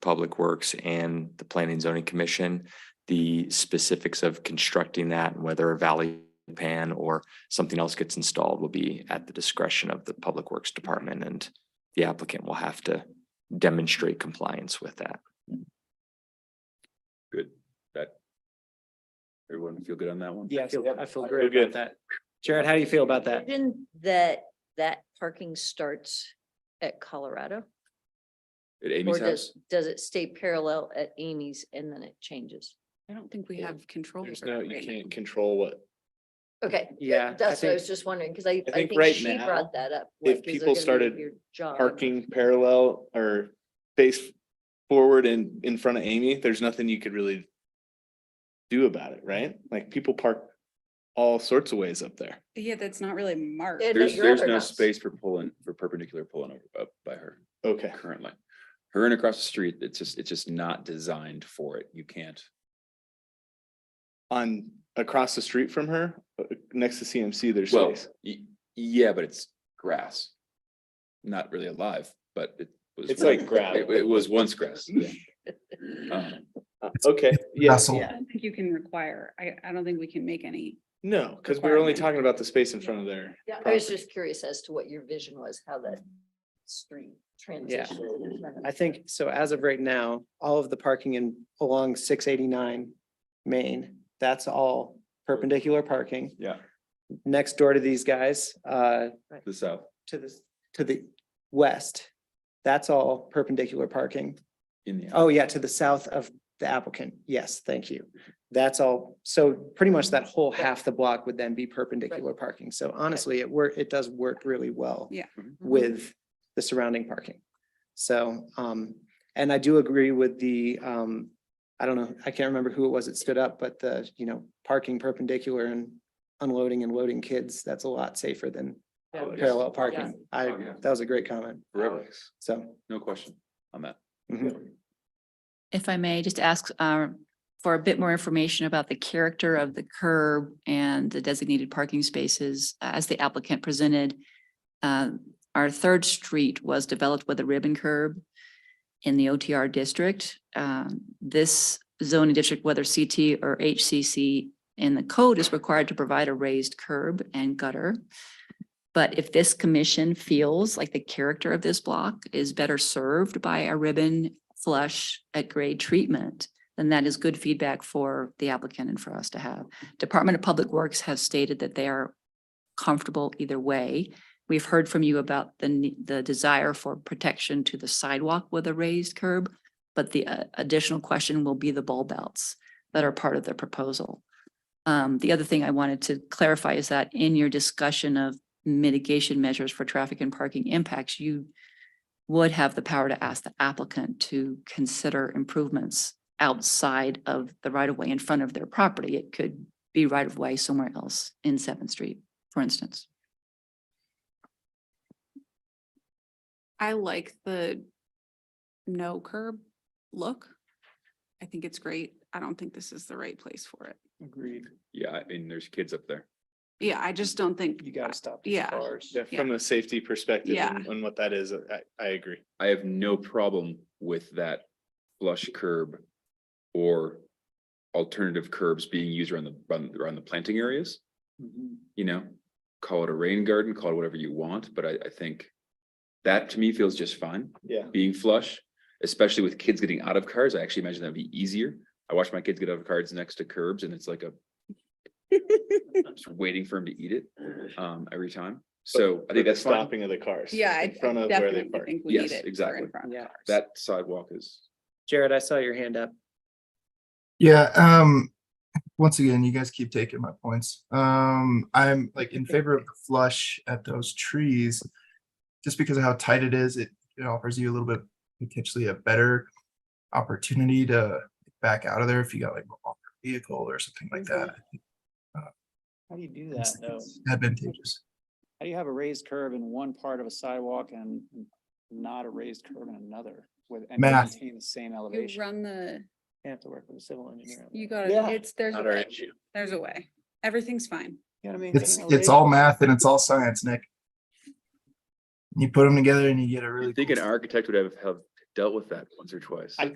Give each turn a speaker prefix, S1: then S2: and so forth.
S1: Public Works and the Planning and Zoning Commission, the specifics of constructing that and whether a valley pan or something else gets installed will be at the discretion of the Public Works Department and the applicant will have to demonstrate compliance with that.
S2: Good, that. Everyone feel good on that one?
S3: Yes,
S4: Feel-
S3: I feel
S4: I
S3: great
S4: feel
S3: about that. Jared, how do you feel about that?
S5: Didn't that, that parking starts at Colorado?
S2: At
S5: Or
S2: Amy's house?
S5: does, does it stay parallel at Amy's and then it changes?
S6: I don't think we
S4: Yeah.
S6: have control.
S4: There's
S6: over
S4: no,
S6: it
S4: you
S6: right now.
S4: can't control what,
S5: Okay. that-
S3: Yeah, I
S5: That's what I
S3: think-
S5: was just wondering, because I,
S4: I
S5: I
S4: think
S5: think
S4: right
S5: she brought that up.
S4: if
S5: like, is it
S4: people
S5: gonna be
S4: started
S5: your job?
S4: parking parallel or face forward and in front of Amy, there's nothing you could really do about it, right? Like people park all sorts of ways up there.
S6: Yeah, that's not really marked.
S5: It- at
S2: There's,
S5: your
S2: there's
S5: other
S2: no
S5: house.
S2: space for pulling, for perpendicular pulling over up by her
S4: Okay,
S2: currently. Her and across the street, it's just, it's just not designed for it. You can't.
S4: on, across the street from her, uh, next to CMC, there's
S2: Well,
S4: space.
S2: y- yeah, but it's grass. Not really alive, but it was.
S4: It's like gravel.
S2: It it was once grass. Um,
S4: Uh, Okay, yeah,
S6: Yeah, I don't think you can require, I, I don't think we can make any.
S4: no, because we were only
S6: Requirement.
S4: talking about the space in front of there.
S5: Yeah, I was just curious as to what your vision was, how that street transition.
S3: I think, so as of right now, all of the parking in along six eighty-nine Main, that's all perpendicular parking.
S2: Yeah.
S3: Next door to these guys, uh,
S2: The south.
S3: to the, to the west, that's all perpendicular parking.
S2: In the.
S3: Oh, yeah, to the south of the applicant. Yes, thank you. That's all. So pretty much that whole half the block would then be perpendicular parking. So honestly, it work, it does work really well
S6: Yeah.
S5: Mm-hmm.
S3: with the surrounding parking. So, um, and I do agree with the, um, I don't know, I can't remember who it was that stood up, but the, you know, parking perpendicular and unloading and loading kids, that's a lot safer than
S2: Oh, yes.
S3: parallel parking. I,
S2: Oh, yeah.
S3: that was a great comment.
S2: Forever.
S3: So.
S2: No question on that.
S4: Mm-hmm.
S3: mhm.
S7: if I may, just ask uh, for a bit more information about the character of the curb and the designated parking spaces uh, as the applicant presented. Um, Our third street was developed with a ribbon curb in the OTR district. Um, This zoning district, whether CT or HCC in the code is required to provide a raised curb and gutter. But if this commission feels like the character of this block is better served by a ribbon flush at grade treatment, then that is good feedback for the applicant and for us to have. Department of Public Works has stated that they are comfortable either way. We've heard from you about the, ne- the desire for protection to the sidewalk with a raised curb, but the uh, additional question will be the bulb outs that are part of the proposal. Um, the other thing I wanted to clarify is that in your discussion of mitigation measures for traffic and parking impacts, you would have the power to ask the applicant to consider improvements outside of the right of way in front of their property. It could be right of way somewhere else in Seventh Street, for instance.
S6: I like the no curb look. I think it's great. I don't think this is the right place for it.
S3: Agreed.
S2: Yeah, I mean, there's kids up there.
S6: Yeah, I just don't think.
S3: You gotta stop.
S6: Yeah.
S4: Yeah,
S6: Yeah.
S4: From a safety perspective
S6: Yeah.
S4: and and what that is, I, I agree.
S2: I have no problem with that flush curb or alternative curbs being used around the, around- around the planting areas.
S4: Mm-hmm.
S2: You know, call it a rain garden, call it whatever you want, but I, I think that to me feels just fine,
S4: Yeah.
S2: being flush, especially with kids getting out of cars. I actually imagine that'd be easier. I watch my kids get out of cars next to curbs and it's like a I'm just waiting for them to eat it, um, every time. So I think that's fine.
S4: Stopping of the cars.
S6: Yeah, I
S4: In front of where they
S6: definitely
S4: park.
S6: think we need
S2: Yes,
S6: it. for
S2: exactly.
S6: in front of
S3: Yeah.
S6: cars.
S2: That sidewalk is
S3: Jared, I saw your hand up.
S8: Yeah, um, once again, you guys keep taking my points. Um, I'm like in favor of the flush at those trees. Just because of how tight it is, it, it offers you a little bit potentially a better opportunity to back out of there if you got like a longer vehicle or something like that.
S9: How do you do that
S8: It's
S9: though?
S8: it's advantageous.
S9: How do you have a raised curve in one part of a sidewalk and not a raised curve in another with and
S8: Math.
S9: maintain the same
S6: You
S9: elevation?
S6: run the,
S3: You have to work with a civil engineer. on
S6: you
S3: that.
S6: gotta,
S3: Yeah.
S6: it's, there's, a
S4: Not our
S6: way.
S4: issue.
S6: there's a way. Everything's fine.
S9: You know what I mean?
S8: It's,
S9: Getting
S8: it's
S9: elevation-
S8: all math and it's all science, Nick. You put them together and you get a really.
S2: I think
S8: cool
S2: an architect would have, have dealt with that once or twice.
S3: I,